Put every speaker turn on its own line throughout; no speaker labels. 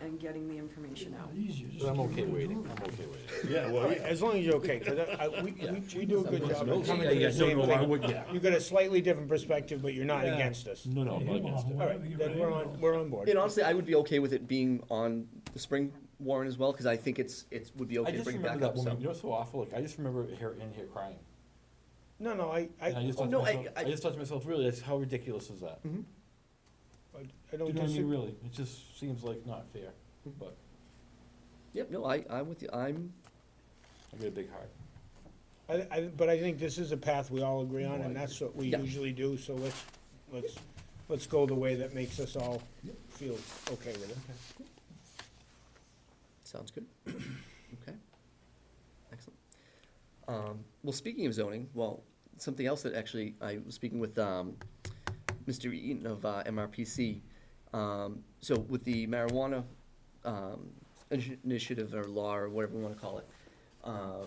and getting the information out.
But I'm okay waiting, I'm okay waiting.
Yeah, well, as long as you're okay, because I, I- we, we- we do a good job of coming
Yeah,
to
yeah,
the
no,
same
no, I
thing.
would- yeah.
You got a slightly different perspective, but you're not
Yeah.
against us.
No, no, I'm not against it.
All right, then we're on, we're on board.
And honestly, I would be okay with it being on the spring warrant as well, because I think it's, it would be
I
okay to
just
bring it back
remember that
up,
woman,
so.
you're so awful, like, I just remember her in here crying.
No, no, I, I,
And I
I
just thought to
No, I-
myself, I Mm-hmm.
I-
just thought to myself, really, that's how ridiculous is that? Do
I
you
don't
know what I mean,
disagree.
really? It just seems like not fair, but
Yep, no, I, I'm with you, I'm,
I got a big heart.
I, I, but I think this is a path we all agree on, and that's what we
Yeah.
usually do, so let's, let's, let's go the way that makes us all feel okay with it.
sounds good. Okay. Excellent. Um, well, speaking of zoning, well, something else that actually, I was speaking with, um, Mr. Eaton of, uh, MRPC. Um, so with the marijuana, um, initi- initiative or law or whatever we wanna call it, uh,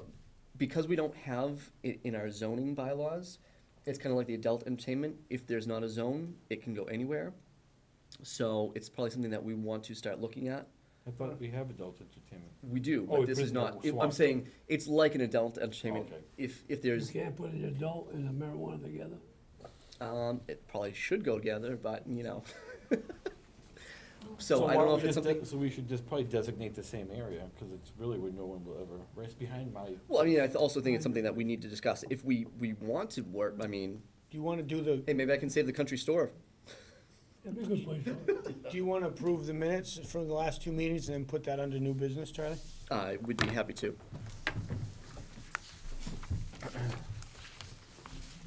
because we don't have it in our zoning bylaws, it's kinda like the adult entertainment, if there's not a zone, it can go anywhere. So it's probably something that we want to start looking at,
I thought we have adult entertainment.
we do,
Oh,
but
it
this is
prison
not,
or
it- I'm
swamp.
saying, it's like an adult entertainment.
Okay.
If, if
You
there's,
can't put an adult and a marijuana together.
um, it probably should go together, but, you know. So
So
I
why
don't know
we
if it's
just de-
something,
So we should just probably designate the same area, because it's really where no one will ever, right it's behind my,
well, I mean, I th- also think it's something that we need to discuss. If we, we want to work, I mean,
Do you wanna do the,
hey, maybe I can save the country store.
It'd be a good place for it.
do you wanna approve the minutes from the last two meetings and then put that under new business, Charlie?
I would be happy to.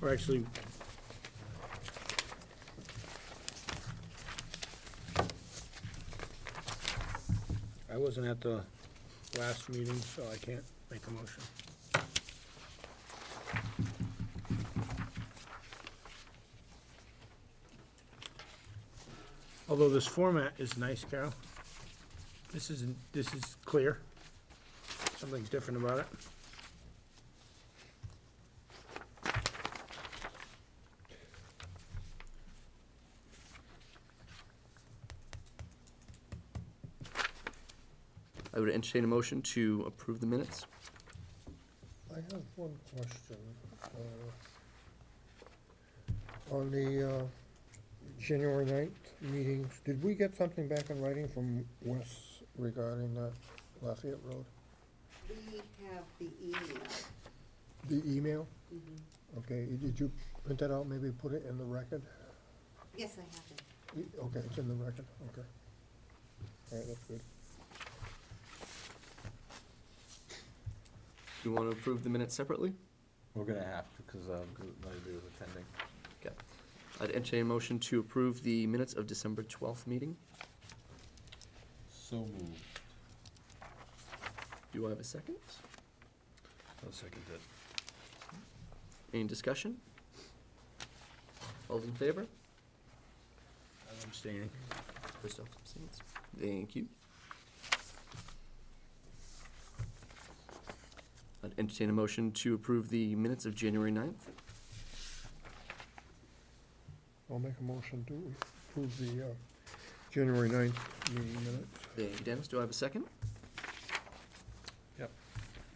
Or actually. I wasn't at the last meeting, so I can't make a motion. Although this format is nice, Carol. This isn't, this is clear. Something's different about it.
I would entertain a motion to approve the minutes.
I have one question. uh, On the uh, January ninth meetings, did we get something back in writing from Wes regarding that Lafayette Road?
We have the email.
The email?
Mm-hmm.
Okay, y- did you print that out, maybe put it in the record?
Yes, I have it.
Y- Okay, it's in the record, okay. All right, that's good.
Do you want to approve the minutes separately?
we're gonna have to, because nobody was attending.
Okay. I'd entertain a motion to approve the minutes of December twelfth meeting.
So moved.
Do I have a second?
I'll second that.
Any discussion? All those in favor?
I'm staying.
Christoph abstains. Thank you. I'd entertain a motion to approve the minutes of January 9th.
I'll make a motion to approve the uh, January ninth meeting minutes.
Thank you, Dennis. Do I have a second?
Yep.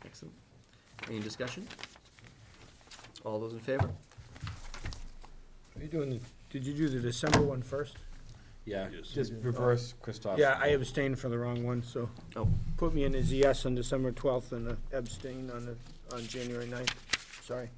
Excellent. Any discussion? All those in favor?
Are you doing, the- did you do the December one first?
Yeah, just reverse Christoph.
Yeah, I abstained for the wrong one, so
Oh,
put me in as a yes on December twelfth and a abstain on the, on January ninth, sorry.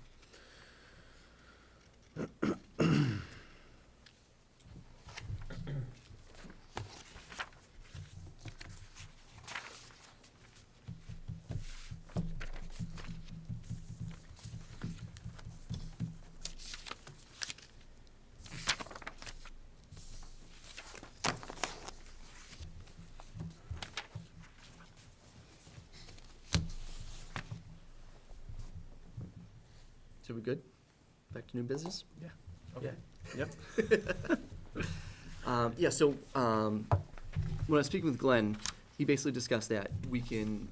so we good? Back to new business?
Yeah.
Okay. Yep. Um, yeah, so, um, when I was speaking with Glenn, he basically discussed that we can,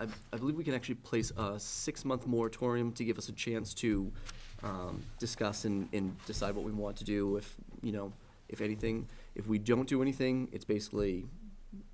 I, I believe we can actually place a six-month moratorium to give us a chance to, um, discuss and, and decide what we want to do, if, you know, if anything. If we don't do anything, it's basically